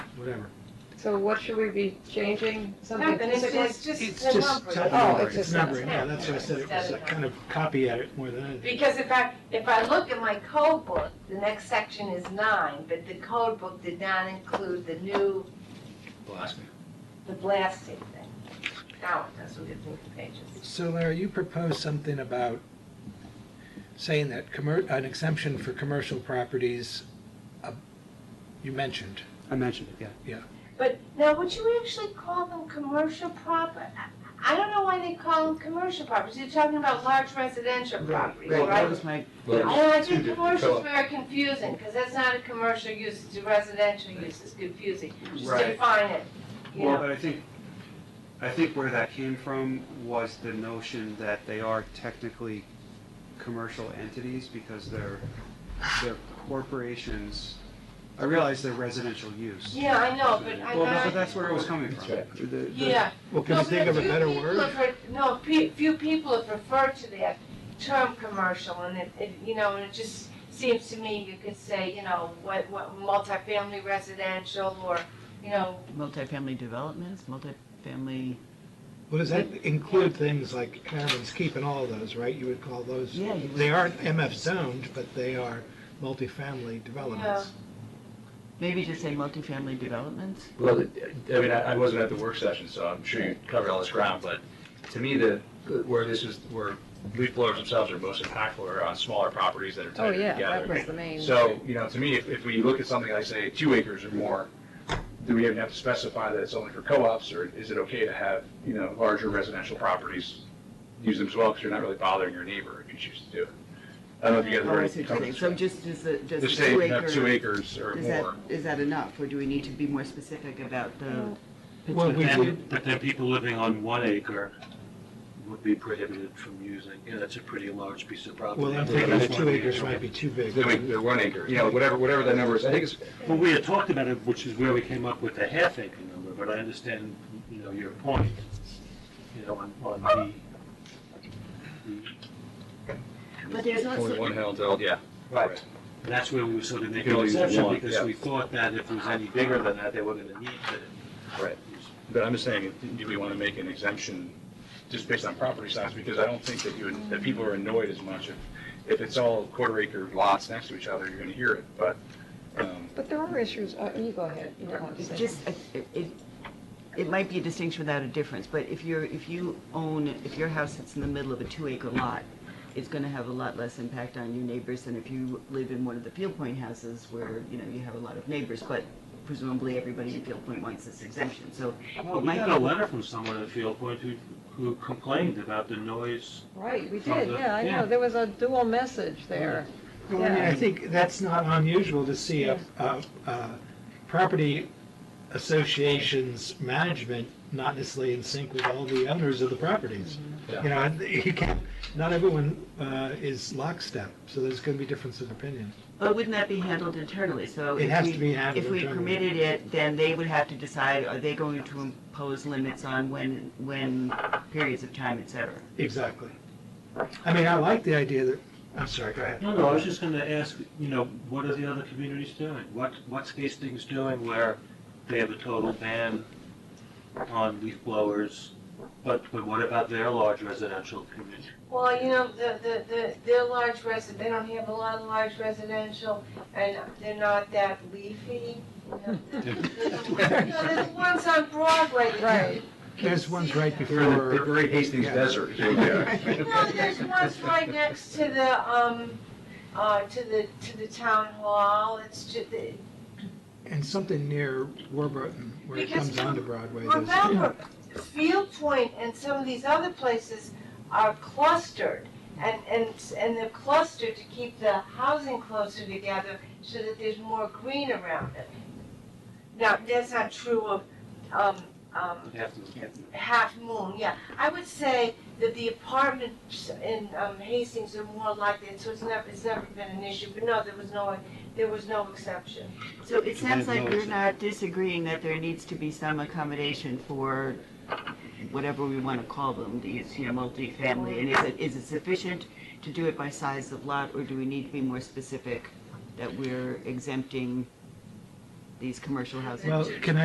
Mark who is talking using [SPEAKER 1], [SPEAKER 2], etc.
[SPEAKER 1] whatever.
[SPEAKER 2] So what should we be changing? Something
[SPEAKER 3] Nothing, it's
[SPEAKER 2] physically?
[SPEAKER 3] just, just
[SPEAKER 1] It's
[SPEAKER 3] the
[SPEAKER 1] just
[SPEAKER 3] numbers.
[SPEAKER 2] Oh,
[SPEAKER 1] numbering,
[SPEAKER 2] it's
[SPEAKER 1] it's
[SPEAKER 2] just-
[SPEAKER 1] numbering, yeah, that's why I said it was a kind of copy edit more than anything.
[SPEAKER 3] Oh, Because if I, if I look at my code book, the next section is nine, but the code book did not include the new, the blasting thing. Now it does, we get through the pages.
[SPEAKER 1] So Larry, you proposed something about saying that commer, an exemption for commercial properties, uh, you mentioned.
[SPEAKER 4] I mentioned it, yeah.
[SPEAKER 3] But now, would you actually call them commercial proper? I don't know why they call them commercial properties, you're talking about large residential properties,
[SPEAKER 4] Well, that
[SPEAKER 3] right?
[SPEAKER 4] was my,
[SPEAKER 3] I
[SPEAKER 5] Well,
[SPEAKER 3] don't know, I
[SPEAKER 5] two
[SPEAKER 3] think
[SPEAKER 5] different
[SPEAKER 3] commercial's
[SPEAKER 5] colors.
[SPEAKER 3] very confusing, because that's not a commercial use, it's a residential use, it's confusing. Just
[SPEAKER 4] Right.
[SPEAKER 3] define it, you
[SPEAKER 4] well,
[SPEAKER 3] know,
[SPEAKER 4] but I think, I think where that came from was the notion that they are technically commercial entities because they're, they're corporations. I realize they're residential use.
[SPEAKER 3] yeah, I know, but I'm
[SPEAKER 4] Well, no, but
[SPEAKER 3] not,
[SPEAKER 4] that's where it was coming from.
[SPEAKER 5] That's
[SPEAKER 4] The- the-
[SPEAKER 3] yeah.
[SPEAKER 1] Well,
[SPEAKER 3] No, but few people have re- No, pe- few people have referred to that term commercial, and it, it, you know, and it just seems to me you could say, you know, what, what, multifamily residential, or, you know,
[SPEAKER 6] multifamily developments, multifamily,
[SPEAKER 1] Well, does that include things like Harriman's Keep and all those, right? You would call those,
[SPEAKER 6] Yeah, you would.
[SPEAKER 1] they aren't MF zoned, but they are multifamily developments.
[SPEAKER 6] maybe just say multifamily developments.
[SPEAKER 5] Well, it- I mean, I I wasn't at the work session, so I'm sure you covered all this ground, but to me, the, where this is, where leaf blowers themselves are most impactful are on smaller properties that are
[SPEAKER 2] Oh,
[SPEAKER 5] tighter
[SPEAKER 2] yeah, that was
[SPEAKER 5] together.
[SPEAKER 2] the main.
[SPEAKER 5] So, you know, to me, if, if we look at something like, say, two acres or more, do we even have to specify that it's only for co-ops, or is it okay to have, you know, larger residential properties use them as well, because you're not really bothering your neighbor if you choose to do it? I don't know if you guys
[SPEAKER 6] Oh, I
[SPEAKER 5] already
[SPEAKER 6] see what you're saying.
[SPEAKER 5] covered
[SPEAKER 6] So
[SPEAKER 5] this.
[SPEAKER 6] just, does the, does the
[SPEAKER 5] Just say if
[SPEAKER 6] two
[SPEAKER 5] you have two
[SPEAKER 6] acre,
[SPEAKER 5] acres or
[SPEAKER 6] is that,
[SPEAKER 5] more.
[SPEAKER 6] is that enough, or do we need to be more specific about the?
[SPEAKER 1] Well, we
[SPEAKER 6] particular-
[SPEAKER 1] did-
[SPEAKER 7] But then people living on one acre would be prohibited from using, you know, that's a pretty large piece of property.
[SPEAKER 1] Well, I'm
[SPEAKER 7] Yeah,
[SPEAKER 1] thinking the
[SPEAKER 7] that's
[SPEAKER 1] two
[SPEAKER 7] one
[SPEAKER 1] acres might be too big.
[SPEAKER 5] Then we, the one acre, you know, whatever, whatever that number is, I think it's,
[SPEAKER 7] Well, we had talked about it, which is where we came up with the half acre number, but I understand, you know, your point, you know, on, on the,
[SPEAKER 6] But there's
[SPEAKER 5] Only
[SPEAKER 6] also,
[SPEAKER 5] one handle, yeah. Right.
[SPEAKER 7] and that's where we were sort of
[SPEAKER 5] You can
[SPEAKER 7] making an
[SPEAKER 5] only use
[SPEAKER 7] exception,
[SPEAKER 5] one,
[SPEAKER 7] because
[SPEAKER 5] yeah.
[SPEAKER 7] we thought that if it was any bigger than that, they were gonna need to.
[SPEAKER 5] Right. But I'm just saying, do we want to make an exemption just based on property size? Because I don't think that you, would- that people are annoyed as much if, if it's all quarter acre lots next to each other, you're going to hear it, but, um,
[SPEAKER 2] But there are issues, uh, you go ahead. You don't want to
[SPEAKER 6] it's
[SPEAKER 2] say.
[SPEAKER 6] just, it, it- it might be a distinction without a difference, but if you're, if you own, if your house sits in the middle of a two acre lot, it's gonna have a lot less impact on your neighbors than if you live in one of the Field Point houses where, you know, you have a lot of neighbors, but presumably everybody in Field Point wants this exemption, so
[SPEAKER 7] Well,
[SPEAKER 6] it
[SPEAKER 7] we
[SPEAKER 6] might
[SPEAKER 7] got a
[SPEAKER 6] be
[SPEAKER 7] letter from someone at Field Point who, who complained about the noise.
[SPEAKER 2] Right, we
[SPEAKER 7] From
[SPEAKER 2] did,
[SPEAKER 7] the-
[SPEAKER 2] yeah, I
[SPEAKER 7] yeah.
[SPEAKER 2] know, there was a dual message there.
[SPEAKER 1] Well, I mean, I think that's not unusual to see a, a, a property association's management not necessarily in sync with all the owners of the properties. You know, and you can't, not everyone, uh, is lockstep, so there's gonna be difference of opinion.
[SPEAKER 6] But wouldn't that be handled internally? So
[SPEAKER 1] It
[SPEAKER 6] if
[SPEAKER 1] has
[SPEAKER 6] we-
[SPEAKER 1] to be handled
[SPEAKER 6] If we
[SPEAKER 1] internally.
[SPEAKER 6] permitted it, then they would have to decide, are they going to impose limits on when, when periods of time, et cetera?
[SPEAKER 1] Exactly. I mean, I like the idea that, I'm sorry, go ahead.
[SPEAKER 7] No, no, I was just gonna ask, you know, what are the other communities doing? What, what's Hastings doing where they have a total ban on leaf blowers? But, but what about their large residential community?
[SPEAKER 3] Well, you know, the, the, the, they're large resi, they don't have a lot of large residential, and they're not that leafy. you know. No, there's ones on Broadway. that-
[SPEAKER 2] Right.
[SPEAKER 1] There's ones right
[SPEAKER 5] we're in the-
[SPEAKER 1] before.
[SPEAKER 5] we're in Hastings
[SPEAKER 1] Yeah.
[SPEAKER 5] Desert.
[SPEAKER 3] No, there's ones right next to the, um, uh, to the, to the town hall, it's just,
[SPEAKER 1] And something near Warburton, where it
[SPEAKER 3] Because
[SPEAKER 1] comes onto Broadway. there's-
[SPEAKER 3] remember, Field Point and some of these other places are clustered, and, and, and they're clustered to keep the housing closer together so that there's more green around it. Now, that's not true of, um, um,
[SPEAKER 7] Half of them.
[SPEAKER 3] Half Moon, yeah. I would say that the apartments in, um, Hastings are more like that, so it's never, it's never been an issue, but no, there was no, there was no exception.
[SPEAKER 6] So it sounds like
[SPEAKER 1] no,
[SPEAKER 6] you're not disagreeing that there needs to be some accommodation for whatever we want to call them, these, you know, multifamily. And is it, is it sufficient to do it by size of lot, or do we need to be more specific that we're exempting
[SPEAKER 8] these commercial houses.
[SPEAKER 6] Well, can I